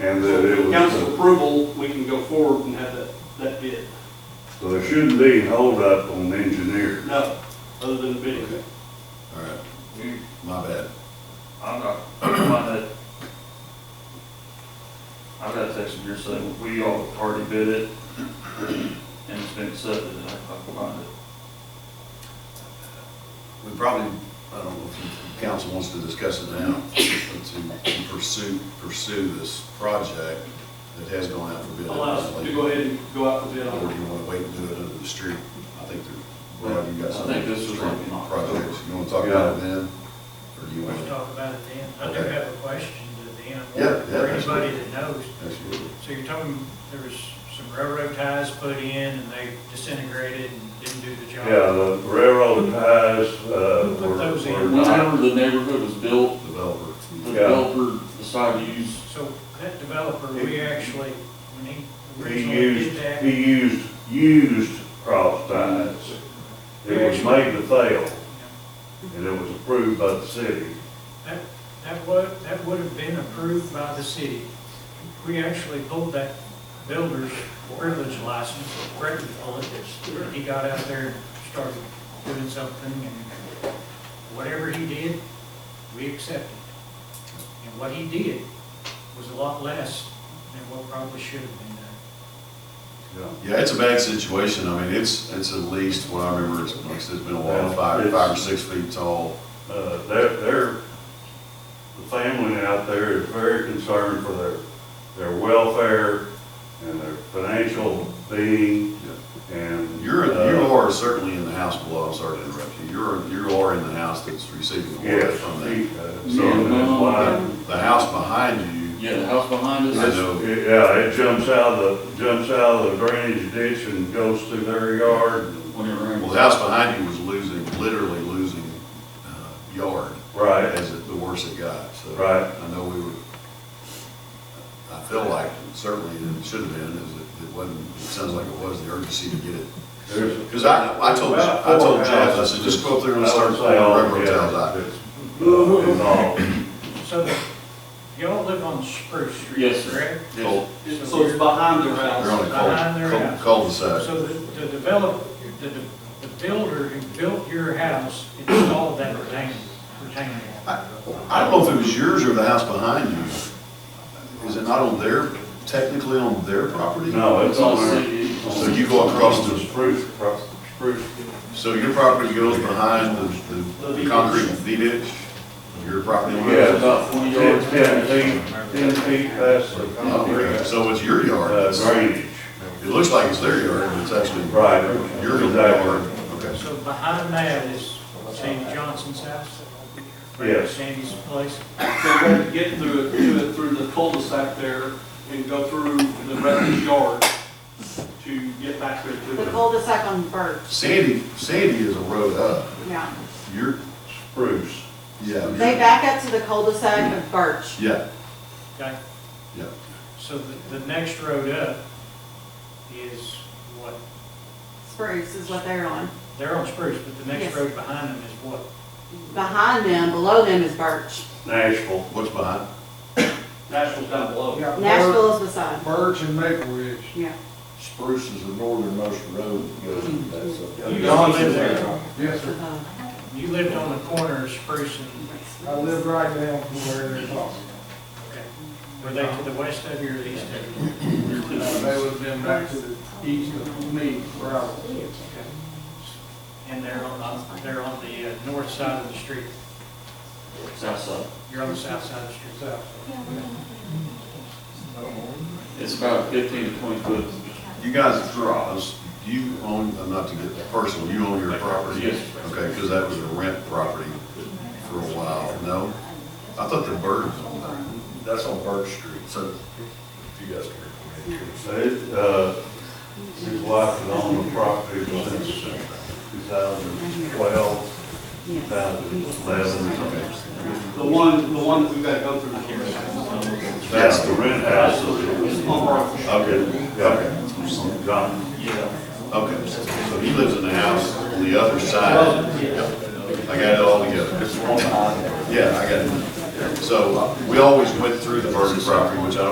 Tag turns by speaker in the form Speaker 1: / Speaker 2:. Speaker 1: and that it was.
Speaker 2: Council approval, we can go forward and have that, that bid.
Speaker 1: So there shouldn't be holdup on engineer.
Speaker 2: No, other than the bidding.
Speaker 3: All right,
Speaker 4: You,
Speaker 3: my bad.
Speaker 4: I'm not, I'm not, I got a text from your saying, we all already bid it, and it's been accepted, and I, I can find it.
Speaker 3: We probably, I don't know if the council wants to discuss it now, but to to pursue, pursue this project that has gone out for bid.
Speaker 2: Allow us to go ahead and uh, go out for bid
Speaker 3: Or
Speaker 2: on
Speaker 3: do
Speaker 2: it.
Speaker 3: you want to wait and do it under the street? I think there, Brad, you got
Speaker 4: I
Speaker 3: something.
Speaker 4: think this was like in October.
Speaker 3: Projects, you want to talk about it then? Or do you
Speaker 5: We
Speaker 3: want
Speaker 5: can
Speaker 3: to?
Speaker 5: talk about it then. I do
Speaker 3: Okay.
Speaker 5: have a question to the
Speaker 3: Yeah,
Speaker 5: NMR,
Speaker 3: yeah,
Speaker 5: for anybody
Speaker 3: absolutely.
Speaker 5: that knows.
Speaker 3: Absolutely.
Speaker 5: So you're talking, there was some railroad ties put in and they disintegrated and didn't do the job?
Speaker 1: Yeah, the railroad ties, uh,
Speaker 5: Put
Speaker 1: were,
Speaker 5: those in.
Speaker 1: were not,
Speaker 4: Whenever the neighborhood was built,
Speaker 3: Developer.
Speaker 4: the
Speaker 1: Yeah.
Speaker 4: developer decided to use,
Speaker 5: So that developer, we actually, when he
Speaker 1: he
Speaker 5: originally did
Speaker 1: used,
Speaker 5: that,
Speaker 1: he used, used cross ties. It was made to fail, and it was approved by the city.
Speaker 5: that, that would, that would have been approved by the city. We actually pulled that builder's privilege license, Brett pulled it, and he got out there and started doing something, and whatever he did, we accepted. And what he did was a lot less than what probably should have been done.
Speaker 3: Yeah, it's a bad situation. I mean, it's, it's at least, what I remember, it's, like I said, it's been a while, five, five or six feet tall.
Speaker 1: Uh, they're, they're, the family out there is very concerned for their, their welfare and their financial being, and.
Speaker 3: You're,
Speaker 1: uh,
Speaker 3: you are certainly in the house below, I'm sorry to interrupt you, you're, you are in the house that's receiving the water
Speaker 1: Yes,
Speaker 3: from that.
Speaker 1: he, uh,
Speaker 4: Yeah,
Speaker 1: so that's
Speaker 4: no.
Speaker 1: why,
Speaker 3: The house behind you,
Speaker 4: yeah, the house behind
Speaker 3: I
Speaker 4: us.
Speaker 3: know,
Speaker 1: yeah, it jumps out of the, jumps out of the drainage ditch and goes through their yard.
Speaker 4: Whenever.
Speaker 3: well, the house behind you was losing, literally losing, uh, yard.
Speaker 1: Right,
Speaker 3: As it, the worse it got, so.
Speaker 1: Right.
Speaker 3: I know we were, I feel like certainly it should have been, is it, it wasn't, it sounds like it was the urgency to get it.
Speaker 1: there's.
Speaker 3: Cause I, I told, I told Jeff, I said, just go up there and start pulling railroad ties out.
Speaker 1: out.
Speaker 5: So y'all live on Spruce Street,
Speaker 4: Yes, sir.
Speaker 5: correct?
Speaker 3: Cul-
Speaker 2: So it's behind their
Speaker 3: They're on
Speaker 2: house.
Speaker 3: a
Speaker 5: Behind their
Speaker 3: cul-
Speaker 5: house.
Speaker 3: cul-de-sac.
Speaker 5: So the, the develop, the, the builder who built your house installed that retaining, retaining wall.
Speaker 3: I I don't know if it was yours or the house behind you. Is it not on their, technically on their property?
Speaker 1: No, it's
Speaker 4: It's on
Speaker 1: on
Speaker 4: the
Speaker 1: there.
Speaker 4: city.
Speaker 3: So you go across
Speaker 1: the
Speaker 3: the,
Speaker 1: spruce, across the spruce.
Speaker 3: so your property goes behind the, the- the concrete V ditch? Your property
Speaker 1: Yeah.
Speaker 3: line?
Speaker 4: It's about twenty
Speaker 1: Ten,
Speaker 4: yards.
Speaker 1: ten feet, ten feet past the
Speaker 3: Oh, okay.
Speaker 1: concrete,
Speaker 3: So it's your yard.
Speaker 1: uh,
Speaker 3: It
Speaker 1: drainage.
Speaker 3: looks like it's their yard, but it's actually
Speaker 1: Right.
Speaker 3: your yard.
Speaker 1: Exactly.
Speaker 3: Okay.
Speaker 5: So behind that is Sandy Johnson's house?
Speaker 1: Yes.
Speaker 5: Sandy's place?
Speaker 2: So we have to get through it, do it through the cul-de-sac there and go through the rest of the yard to get back there to
Speaker 6: The
Speaker 2: it.
Speaker 6: cul-de-sac on Birch,
Speaker 3: Sandy, Sandy is a road up.
Speaker 6: yeah.
Speaker 3: Your,
Speaker 1: Spruce.
Speaker 3: yeah. your-
Speaker 6: They back up to the cul-de-sac of Birch.
Speaker 3: Yeah,
Speaker 5: Okay,
Speaker 3: yeah.
Speaker 5: so the, the next road up is what?
Speaker 6: Spruce is what they're on.
Speaker 5: They're on Spruce, but the next
Speaker 6: Yes.
Speaker 5: road behind them is what?
Speaker 6: Behind them, below them is Birch.
Speaker 1: Nashville.
Speaker 3: What's behind?
Speaker 2: Nashville's down below.
Speaker 6: Nashville is beside.
Speaker 7: Birch and Maple Ridge.
Speaker 6: Yeah.
Speaker 8: Spruce is the northernmost road that goes in that zone.
Speaker 5: You don't live there.
Speaker 7: Yes, sir.
Speaker 6: Uh,
Speaker 5: You lived on the corner of Spruce and,
Speaker 7: I live right down from where they're talking.
Speaker 5: okay. Were they to the west of you or the east of you?
Speaker 7: Now, They would have been back to the east of me, where I was.
Speaker 5: And they're on, they're on the uh, north side of the street.
Speaker 4: South side.
Speaker 5: You're on the south side of the street.
Speaker 7: So,
Speaker 4: It's about fifteen to twenty foot.
Speaker 3: You guys draws, you own, uh, not to get personal, you own your property?
Speaker 4: Yes.
Speaker 3: Okay, because that was a rent property for a while, no? I thought the birds owned that.
Speaker 8: That's on Birch Street.
Speaker 3: So,
Speaker 8: If you guys care.
Speaker 1: It, uh, his wife has owned the property since two thousand twelve, two
Speaker 6: yes.
Speaker 1: thousand eleven.
Speaker 2: The one, the one that we've got to go through the cul-de-sac.
Speaker 1: That's the rent house.
Speaker 2: It's on Broadway.
Speaker 3: okay,
Speaker 1: Yeah, John,
Speaker 3: okay. So he lives in the house on the other side. Yep. I got it all together. uh, Yeah, I got it. So we always went through the Burton property, which I don't